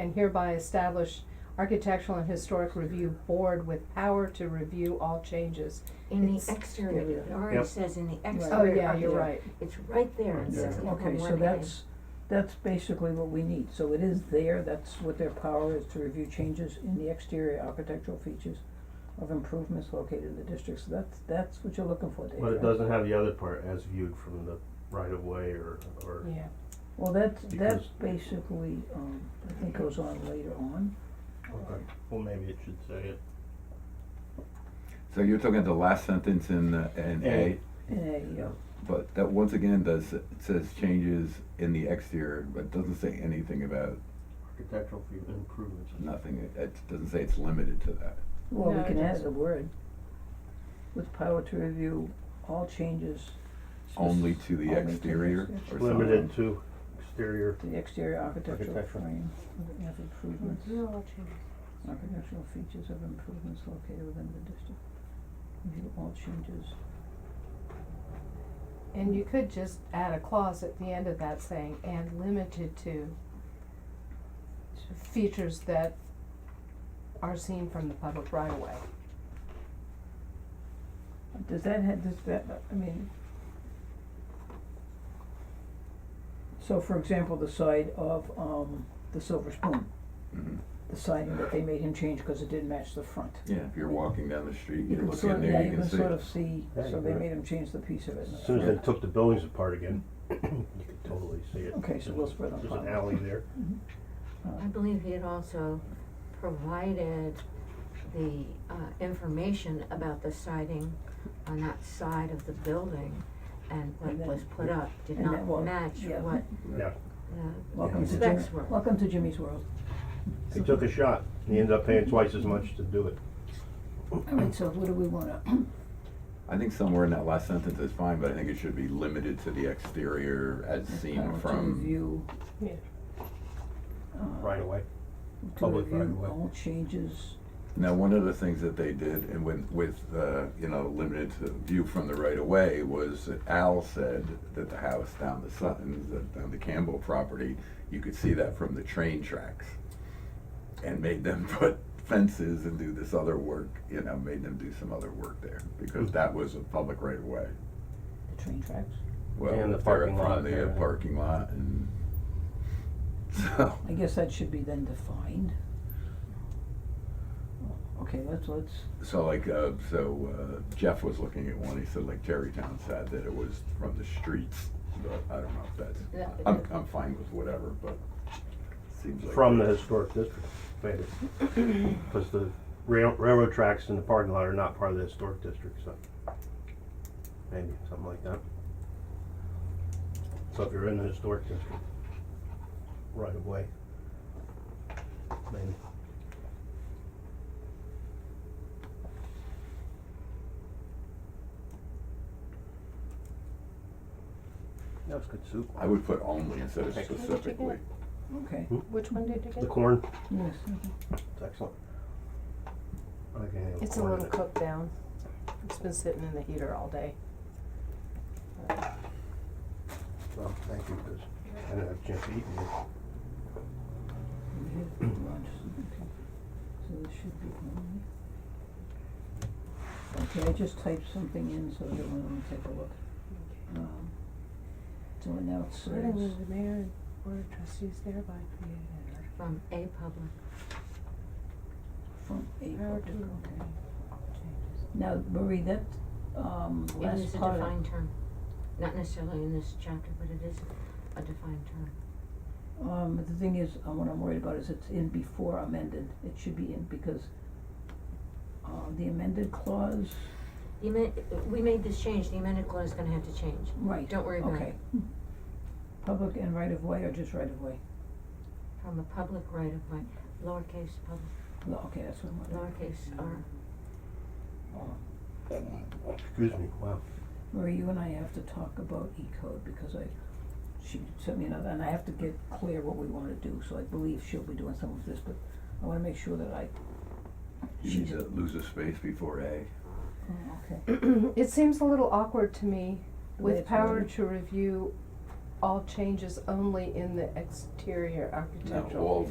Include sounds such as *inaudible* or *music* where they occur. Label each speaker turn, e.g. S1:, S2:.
S1: and hereby establish Architectural and Historic Review Board with power to review all changes.
S2: In
S1: It's-
S2: the exterior,
S1: yeah.
S2: it already
S3: Yep.
S2: says in the exterior.
S1: Oh, yeah, you're
S2: architect-
S1: right.
S2: It's right there in
S3: Yeah.
S2: sixty-four
S4: Okay, so that's, that's basically what we need, so it is there, that's what their power is, to review changes in the exterior architectural features of improvements located in the district, so that's, that's what you're looking for, Dave,
S3: But it
S4: right?
S3: doesn't have the other part as viewed from the right of way or, or,
S1: Yeah.
S4: Well, that's, that's
S3: Because-
S4: basically, um, I think goes on later on,
S3: okay, well, maybe it should say it.
S5: So you're talking the last sentence in, uh, in A,
S4: in a, uh,
S5: but that once again does, it says changes in the exterior, but doesn't say anything about
S3: Architectural view improvements.
S5: nothing, it- it doesn't say it's limited to that.
S4: well,
S1: No,
S4: we
S1: it
S4: can add
S1: doesn't.
S4: the word. With power to review all changes. spec-
S5: Only to the
S4: only to
S5: exterior or something.
S3: Limited to exterior,
S4: To the exterior architectural
S3: Architectural.
S4: frame of- of improvements.
S1: Review all changes.
S4: Architectural features of improvements located within the district. Review all changes.
S1: And you could just add a clause at the end of that saying, and limited to features that are seen from the public right of way.
S4: Does that have, does that, I mean. So for example, the side of, um, the Silver Spoon,
S5: Mhm.
S4: the siding that they made him change because it didn't match the front.
S5: Yeah, if you're walking down the street,
S4: You
S5: you're
S4: can
S5: looking
S4: sort,
S5: in
S4: yeah,
S5: there, you
S4: you
S5: can
S4: can
S5: see.
S4: sort of see,
S3: Yeah, you
S4: so they
S3: can.
S4: made him change the piece of it. in the
S3: as soon as
S4: front.
S3: they took the buildings apart again, *clears throat* you could totally see it.
S4: Okay, so we'll spread on
S3: There's an
S4: top.
S3: alley there.
S2: I believe he had also provided the uh information about the siding on that side of the building and what
S4: And
S2: was
S4: then-
S2: put up did
S4: and
S2: not
S4: that was-
S2: match
S4: yeah.
S2: what
S3: Yeah,
S2: the
S4: Welcome to
S2: specs
S4: Jimmy-
S2: were.
S4: welcome to Jimmy's world.
S3: he took a shot, and he ended up paying twice as much to do it.
S4: Alright, so what do we wanna,
S5: I think somewhere in that last sentence is fine, but I think it should be limited to the exterior as
S4: power
S5: seen
S4: to
S5: from,
S4: review,
S1: Yeah.
S4: uh,
S3: Right away,
S4: to
S3: Public right
S4: review
S3: away.
S4: all changes,
S5: now, one of the things that they did and when, with, uh, you know, limited to view from the right of way was that Al said that the house down the Suttons, that down the Campbell property, you could see that from the train tracks. And made them *laughs* put fences and do this other work, you know, made them do some other work there,
S3: Hmm.
S5: because that was a public right of way.
S4: the train tracks.
S5: Well,
S3: And the
S5: they're
S3: parking lot
S5: from the
S3: there.
S5: uh, parking lot and, *laughs* so,
S4: I guess that should be then defined. Okay, let's, let's,
S5: so like, uh, so uh, Jeff was looking at one, he said like Terrytown said that it was from the streets, but I don't know if
S2: Yeah.
S5: that's, I'm, I'm fine with whatever, but seems like.
S3: from the historic district, made it. Cause the rail, railroad tracks and the parking lot are not part of the historic district, so. Maybe, something like that. So if you're in the historic district, right of way. Maybe, that was good soup.
S5: I would put only instead of
S3: Okay.
S5: specifically.
S4: okay,
S1: Which one did you
S3: The
S1: get?
S3: corn,
S4: yes, okay.
S3: it's excellent. I like any of the
S1: It's a
S3: corn in
S1: little
S3: it.
S1: cooked down. It's been sitting in the heater all day.
S3: Well, thank you, because I didn't have a chance to eat it.
S4: we have lunch, okay. So this should be only. Okay, I just typed something in, so everyone will take a look. Um, so it now it says,
S1: the mayor and board of trustees thereby created.
S2: from a public,
S4: from a
S1: Power
S4: public,
S1: to
S4: okay.
S1: changes.
S4: Now, Marie, that, um, last part.
S2: it is a defined term. Not necessarily in this chapter, but it is a defined term.
S4: Um, but the thing is, uh, what I'm worried about is it's in before amended, it should be in because, uh, the amended clause,
S2: The amend- we made this change, the amended clause is gonna have to change.
S4: right,
S2: Don't worry about it.
S4: okay. Public and right of way or just right of way?
S2: From a public right of way, lowercase public,
S4: No, okay, that's what I'm wondering.
S2: lowercase r.
S3: Excuse me, wow.
S4: Marie, you and I have to talk about E code because I, she sent me another, and I have to get clear what we wanna do, so I believe she'll be doing some of this, but I wanna make sure that I,
S5: You need to lose a space before A.
S4: oh, okay.
S1: *clears throat* It seems a little awkward to me
S4: The way
S1: with
S4: it's
S1: power
S4: worded.
S1: to review all changes only in the exterior
S5: No,
S1: architectural.
S5: all